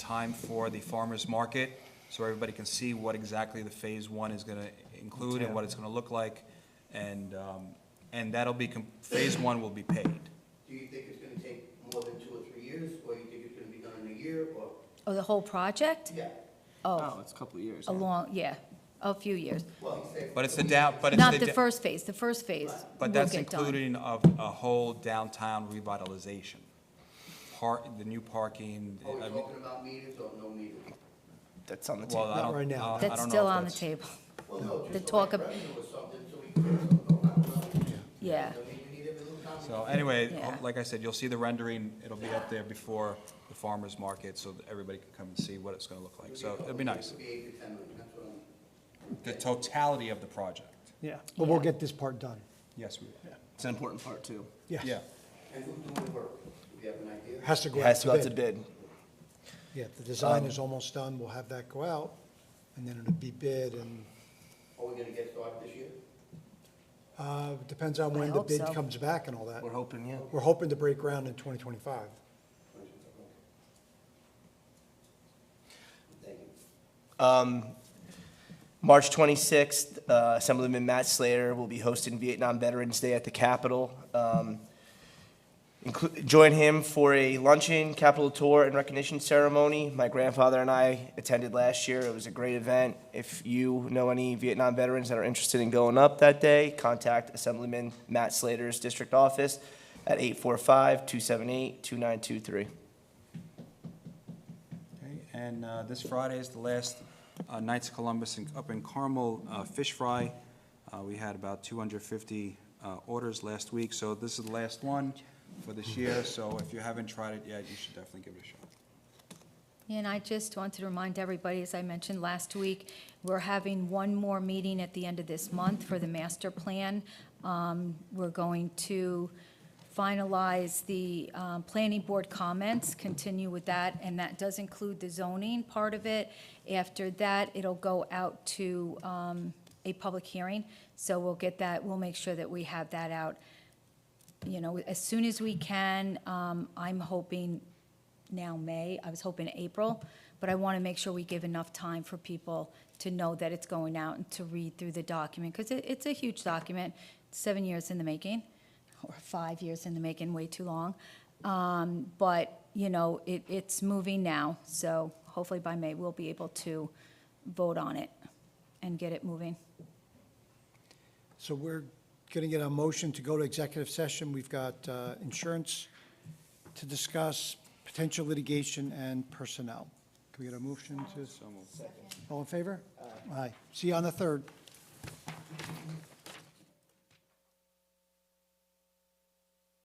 time for the farmer's market, so everybody can see what exactly the Phase One is gonna include and what it's gonna look like. And, um, and that'll be, com- Phase One will be paid. Do you think it's gonna take more than two or three years, or you think it's gonna be done in a year, or, Oh, the whole project? yeah? Oh, Oh, it's a couple of years. a long, yeah, a few years. Well, he said. But it's the down, but it's the. Not the da- first phase, the first phase will But that's get done. including of a whole downtown revitalization. Park, the new parking. Are we Oh, I mean- talking about meters or no meters? That's on the well, I table. don't- uh, right now. I- I don't That's know still if on the that's- table, Well, no, The just so talk like of- revenue or something, so we can, so, no, yeah. I mean, you need a little time. So anyway, uh, Yeah. like I said, you'll see the rendering, it'll be up there before the farmer's market, so that everybody can come and see what it's gonna look like, so it'll be nice. It'll be eight to ten million, that's what I'm. The totality of the project, Yeah, but we'll Yeah. get this part done. yes, we, It's an important part, too. yeah. And who's doing the work? Do you have an idea? Has to It go out has to go out to to bid. bid. Um, Yeah, if the design is almost done, we'll have that go out, and then it'll be bid, and, Are we gonna get started this year? uh, depends on I when the hope bid so. comes back and all that. We're hoping, yeah. We're hoping to break ground in 2025. Thank you. March 26th, uh, Assemblyman Matt Slater will be hosting Vietnam Veterans Day at the Capitol. Um, inclu- Join him for a luncheon, Capitol tour, and recognition ceremony. My grandfather and I attended last year. It was a great event. If you know any Vietnam veterans that are interested in going up that day, contact Assemblyman Matt Slater's district office at 845-278-2923. Okay, And uh, this Friday is the last uh, Knights of Columbus in- up in Carmel uh, Fish Fry. Uh, We had about 250 uh, orders last week, so this is the last one for this year, so if you haven't tried it yet, you should definitely give it a shot. And I just wanted to remind everybody, as I mentioned last week, we're having one more meeting at the end of this month for the master plan. Um, We're going to finalize the um, planning board comments, continue with that, and that does include the zoning part of it. After that, it'll go out to um, a public hearing, so we'll get that, we'll make sure that we have that out, you know, as soon as we can. Um, I'm hoping now May, I was hoping April, but I want to make sure we give enough time for people to know that it's going out and to read through the document, because it, it's a huge document, seven years in the making, or five years in the making, way too long. Um, but, you know, it, it's moving now, so hopefully by May, we'll be able to vote on it and get it moving. So we're going to get a motion to go to executive session. We've got uh, insurance to discuss, potential litigation, and personnel. Can we get a motion to? All in favor? Aye. See you on the 3rd.